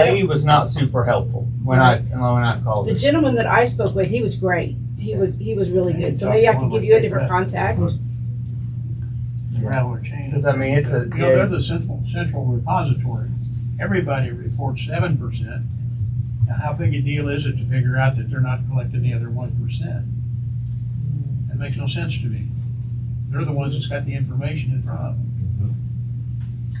lady was not super helpful when I when I called The her. gentleman that I spoke with, he was great. He was, he was really good. So maybe I can give you a different contact. Rattler chain. Because I mean, it's a You know, they're yeah, the central, central repository. Everybody reports seven percent. Now, how big a deal is it to figure out that they're not collecting the other one percent? That makes no sense to me. They're the ones that's got the information in front of them.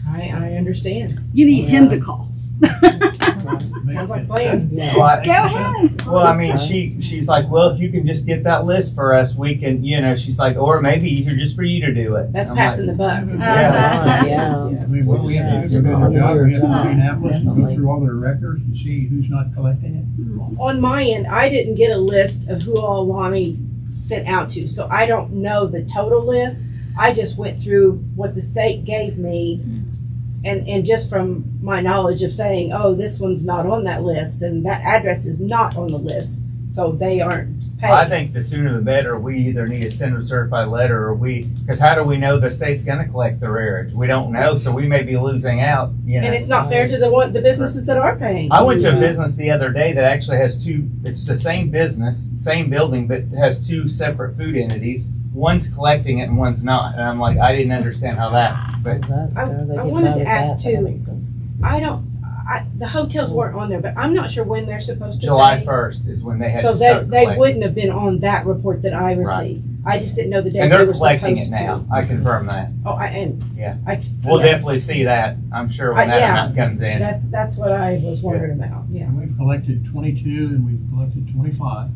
I, I understand. You need him to call. Sounds like playing. well, I- Go ahead. well, I mean, she she's like, well, if you can just get that list for us, we can, you know, she's like, or maybe easier just for you to do it. That's I'm like, "Mm-hmm." passing the buck. Yeah. Yeah. I mean, what we have to do is our job, we have to go to Indianapolis and go through all their records and see who's not collecting it. On my end, I didn't get a list of who all Lonnie sent out to, so I don't know the total list. I just went through what the state gave me and, and just from my knowledge of saying, oh, this one's not on that list and that address is not on the list, so they aren't paid. I think the sooner the better. We either need to send a certified letter, or we because how do we know the state's going to collect the rearage? We don't know, so we may be losing out. You know. And it's not fair to the one, the businesses that are paying. I went to a business the other day that actually has two. It's the same business, same building, but has two separate food entities. One's collecting it and one's not. And I'm like, I didn't understand how that. But I, I wanted to ask too. I don't, I, the hotels weren't on there, but I'm not sure when they're supposed to pay. July 1st is when they had So to they, start they collecting. wouldn't have been on that report that I Right. received. I just didn't know the date and they they're were supposed to. collecting it now. I confirm that. Oh, I, and. Yeah. I- We'll yes. definitely see that. I'm sure when Uh, that yeah. amount comes in. That's, that's what I was wondering about, yeah. And we've collected twenty-two and we've collected twenty-five.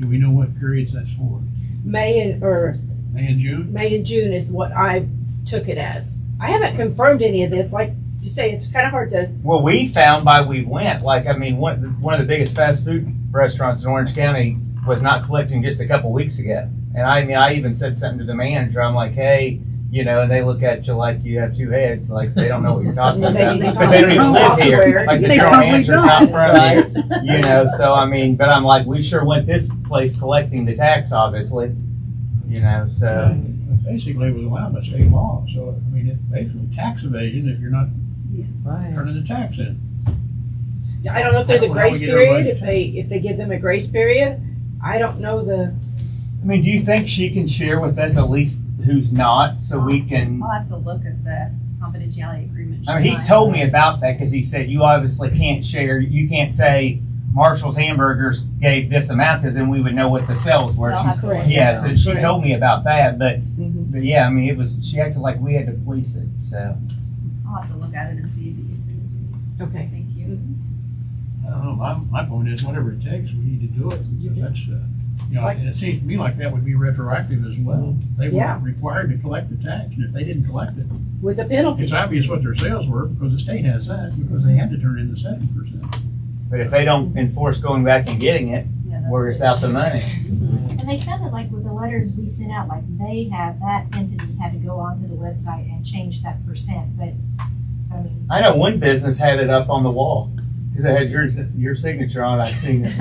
Do we know what periods that's for? May and, or, May and June? May and June is what I took it as. I haven't confirmed any of this, like you say, it's kind of hard to, Well, we found by we went, like, I mean, one, one of the biggest fast food restaurants in Orange County was not collecting just a couple weeks ago. And I mean, I even said something to the manager. I'm like, hey, you know, and they look at you like you have two heads, like they don't know what you're talking They- about. they But they don't even probably live here. somewhere. Like the They general probably manager's out don't. front of you, you know. So, I mean, but I'm like, we sure went this place collecting the tax, obviously, you know, so. Basically, it was allowed by state law, so, I mean, it's basically tax evasion if you're not turning the tax in. I don't know if there's I a don't know how we grace get everybody period, to if pay. they, if they give them a grace period. I don't know the, I mean, do you think she can share with us at least who's not so we can? I'll have to look at the confidentiality agreement. I mean, he she's told me about that because he said you obviously can't share. You can't say Marshall's Hamburgers gave this amount because then we would know what the sales were. They'll She's, have to look yeah, it so up. she Right. told me about that, but mm-hmm, but yeah, I mean, it was she acted like we had to police it. So on. I'll have to look at it and see if it gets in to me. okay. Thank you. I don't know, my, my point is, whatever it takes, we need to do it, because that's, uh, you know, and it seems to me like that would be retroactive as well. They were Yeah. required to collect the tax, and if they didn't collect it, With a penalty. it's obvious what their sales were, because the state has that, because they had to turn in the seven percent. but if they don't enforce going back and getting it, Yeah, that's we're it. just out the money. And they sounded like with the letters we sent out, like they had, that entity had to go onto the website and change that percent, but, I mean, I know one business had it up on the wall because it had your your signature on. it. I seen it.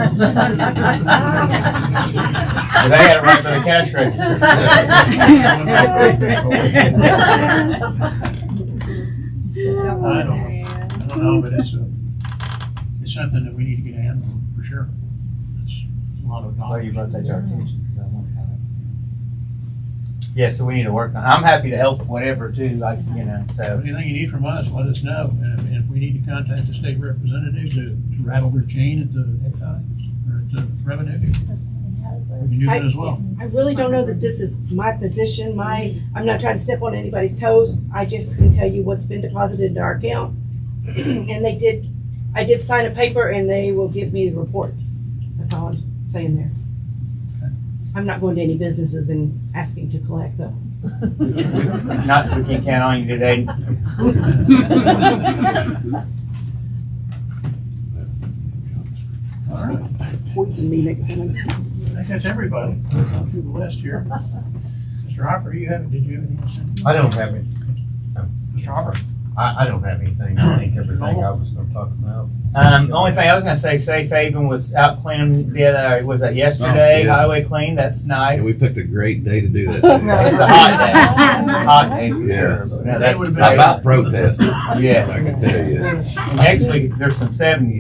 But they had it right for the cash register. I I don't- don't know, but it's a, it's something that we need to get a handle on, for sure. That's a lot of Well, dollars. you brought that to our attention, 'cause I wondered how that was. Yeah, so we need to work on, I'm happy to help whatever too, like, you know, so, Anything you need from us, let us know. And if- if we need to contact the state representative to to rattle their chain at the excise or at the revenue, we can do that as well. I really don't know that this is my position, my, I'm not trying to step on anybody's toes. I just can tell you what's been deposited into our account. And they did, I did sign a paper and they will give me the reports. That's all I'm saying there. I'm not going to any businesses and asking to collect though. not, that we can count on you today. All right. Poison me next time. I think that's everybody. Go Through the list here. Mr. Hopper, you have, did you have anything to say? I don't have any. Mr. Hopper? I, I don't have anything. I think everything I was gonna talk about. Um, the only thing I was gonna say, Safe Haven was out cleaning the other, was that yesterday? Oh, yes. Highway clean, that's nice. And we It's picked a great day to do that. a hot day, hot day for Yes. sure. but No, They that's would've been- great. About protesting, Yeah, I can tell you. and next week, there's some seventies.